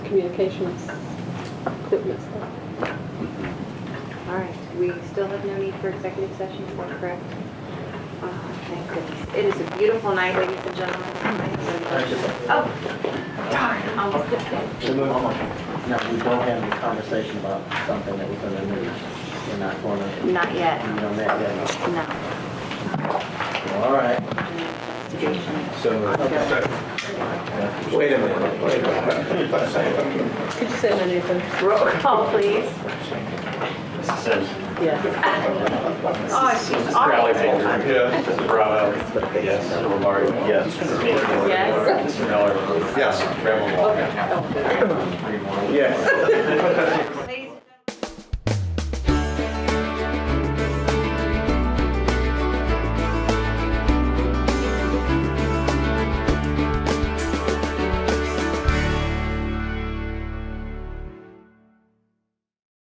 communications equipment stuff. All right, we still have no need for executive session, is that correct? Oh, Thank goodness. It is a beautiful night, ladies and gentlemen. Oh, darn, almost missed it. No, we don't have any conversation about something that we're gonna move. We're not gonna, Not be yet, on that yet. no. All right. Investigation. Wait a minute, wait a minute. Could you say my name, please? Roll call, Oh, please. Mrs. Sims. Yeah. Oh, she's Crowley awful. Bolger. Yes. Mrs. Bravo. Yes. Mr. Lombardi. Yes. Mrs. Meeker. Yes. Mr. Miller. Yes. Mr. Graham Walker. Yes.